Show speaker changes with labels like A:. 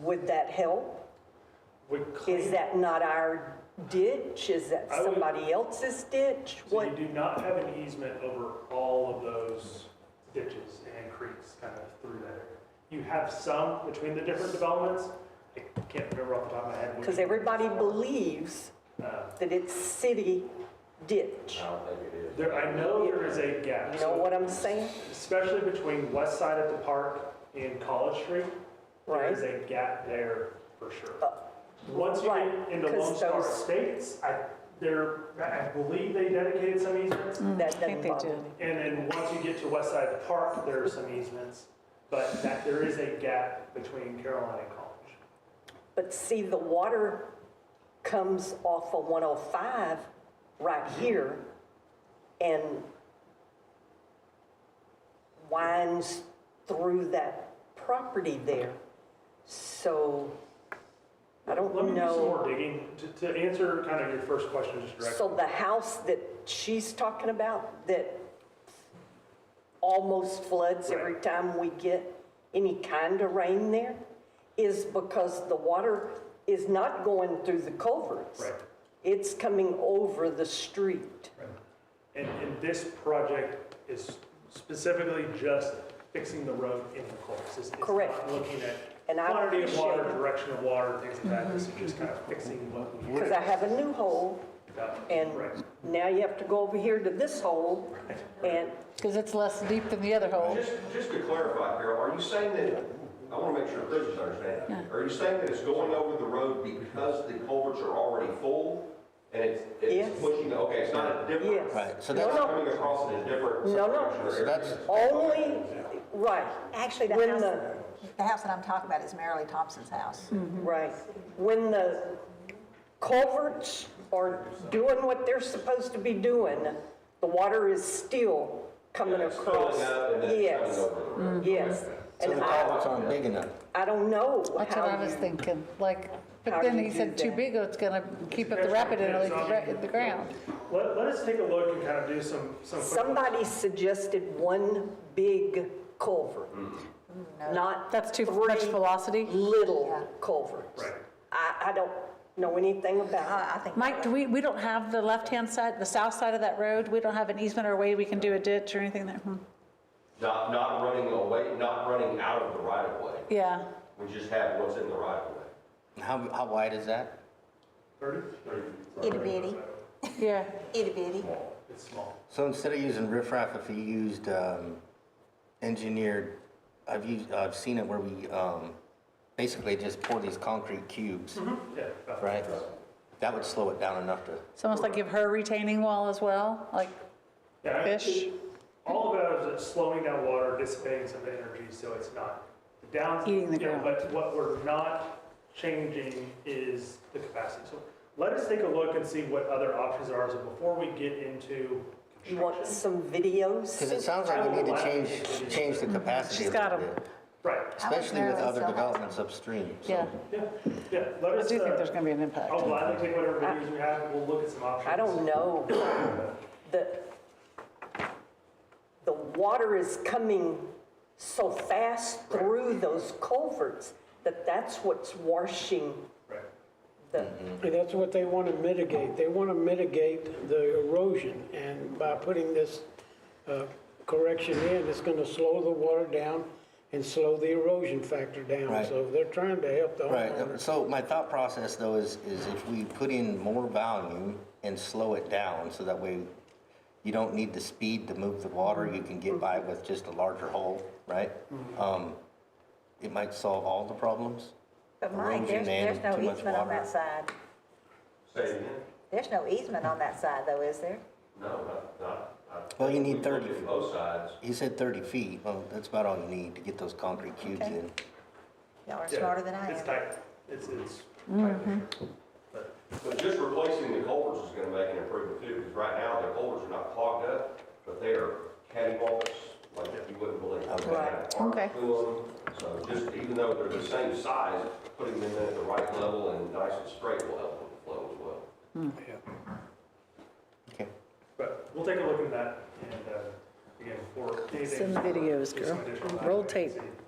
A: would that help?
B: Would clean-
A: Is that not our ditch? Is that
B: I would-
A: somebody else's ditch?
B: So you
A: What,
B: do not have an easement over all of those ditches and creeks kind of through that area. You have some between the different developments. I can't remember off the top of my head. which-
A: because everybody believes
B: Uh,
A: that it's city ditch.
C: I don't think it is.
B: There, I know there is a gap.
A: You know
B: So
A: what I'm saying?
B: Especially between west side of the park and College Street. There
A: Right.
B: is a gap there for sure.
A: Uh,
B: Once you
A: right,
B: get into
A: 'cause
B: Lone Star
A: those-
B: Estates, I, there, I I believe they dedicated some easements.
A: That doesn't
D: think they
A: bother
D: did.
A: me.
B: And then once you get to West Side of the Park, there are some easements, but that, there is a gap between Carolina and College.
A: But see, the water comes off of 105 right here and winds through that property there. So I
B: Let me
A: don't
B: do some
A: know.
B: more digging to, to answer kind of your first question just directly.
A: So the house that she's talking about that almost floods every
B: Right.
A: time we get any kind of rain there is because the water is not going through the culverts.
B: Right.
A: It's coming over the street.
B: And, and this project is specifically just fixing the road in the course. It's-
A: Correct.
B: It's not looking at
A: And I
B: quantity of water,
A: appreciate it.
B: direction of water, things like that. This is just kind of fixing what we.
A: Because I have a new hole and
B: Right.
A: now you have to go over here to this hole and
D: Because it's less deep than the other hole.
C: Just, just to clarify, Carol, are you saying that, I want to make sure Chris is understanding. Are you saying that it's going over the road because the culverts are already full? And it's,
A: Yes.
C: it's pushing, okay, it's not a different.
A: Yes.
E: Right, so
C: It's not
A: No, no.
C: coming across in a different.
A: No, no.
C: direction or
E: So that's-
C: area.
A: only, right,
F: Actually, the
A: When
F: house,
A: the-
F: the house that I'm talking about is Marilee Thompson's house.
A: Right. When the culverts are doing what they're supposed to be doing, the water is still coming
C: And it's filling
A: across.
C: up and then it's coming
A: Yes, Mm.
C: over the road.
A: yes.
E: So
A: And
E: the
A: I,
E: culverts aren't big enough.
A: I don't know
D: That's what I
A: how
D: was
A: you,
D: thinking, like,
A: How
D: but then
A: do
D: he
A: you
D: said
A: do
D: too
A: that?
D: big, oh, it's gonna keep up the rapid and it'll leave the- the ground.
B: Let, let us take a look and kind of do some, some. quick-
A: somebody suggested one big culvert,
C: Mm.
A: not
D: That's too much
A: three
D: velocity.
A: little
F: Yeah.
A: culverts.
B: Right.
A: I, I don't know anything about it.
F: Uh, I I think.
D: Mike, do we, we don't have the left-hand side, the south side of that road? We don't have an easement or a way we can do a ditch or anything there? Hmm.
C: Not, not running away, not running out of the right of way.
D: Yeah,
C: We just have what's in the right of way.
E: How, how wide is that?
B: Thirty?
F: Itty bitty,
D: yeah.
F: itty bitty.
B: It's small.
E: So instead of using riffraff, if you used um, engineered, I've used, I've seen it where we um, basically just pour these concrete cubes,
D: Mm-hmm.
B: Yeah. about-
E: right? That would slow it down enough to.
D: It's almost like give her a retaining wall as well, like,
B: Yeah, I-
D: Fish.
B: All about is slowing down water, dissipating some energy, so it's not down.
D: Eating the
B: yeah,
D: ground.
B: But what we're not changing is the capacity. So let us take a look and see what other options are, so before we get into
A: You want
B: construction.
A: some videos?
E: Because it sounds like we need to change, change the capacity
D: She's
E: a
D: got
E: little
D: 'em.
E: bit,
B: Right,
E: especially with
F: Alex Merrill
E: other
F: still has
E: developments upstream. so-
D: yeah.
B: yeah, yeah, let
D: I
B: us.
D: do think
B: uh,
D: there's gonna be an impact.
B: I'll gladly take whatever videos we have, we'll look at some options.
A: I don't know. The, the water is coming so fast through those culverts that that's what's washing
B: Right. Hmm.
A: the,
G: And that's what they want to mitigate. They want to mitigate the erosion, and by putting this uh, correction in, it's going to slow the water down and slow the erosion factor down.
E: Right.
G: So they're trying to help the
E: Right,
G: homeowners.
E: so my thought process though is, is if we put in more volume and slow it down, so that way you don't need the speed to move the water, you can get by with just a larger hole, right? Um, it might solve all the problems.
F: But
E: Erosion
F: Mike, there's,
E: and
F: there's no
E: too much
F: easement on
E: water.
F: that side.
C: Say it again?
F: There's no easement on that side though, is there?
C: No, not, not. not-
E: Well, you need
C: we looked
E: 30.
C: at Both sides.
E: He said thirty feet, well, that's about all you need to get those concrete cubes
F: Okay.
E: in.
F: Y'all are
B: Yeah,
F: smarter than I
B: It's
F: am.
B: tight, it's, it's.
D: Mm-hmm.
B: tight. But-
C: But just replacing the culverts is gonna make an improvement too, because right now, the culverts are not clogged up, but they are cattywampus, like you wouldn't believe. They have arcs
D: Okay.
C: through 'em. So just, even though they're the same size, putting them in at the right level and nice and straight will help with the flow as well.
E: Okay.
B: But we'll take a look at that and, uh, again, for anything.
D: Send videos,
B: just some
D: girl.
B: additional
D: Roll
B: documentation,
D: tape.
B: see.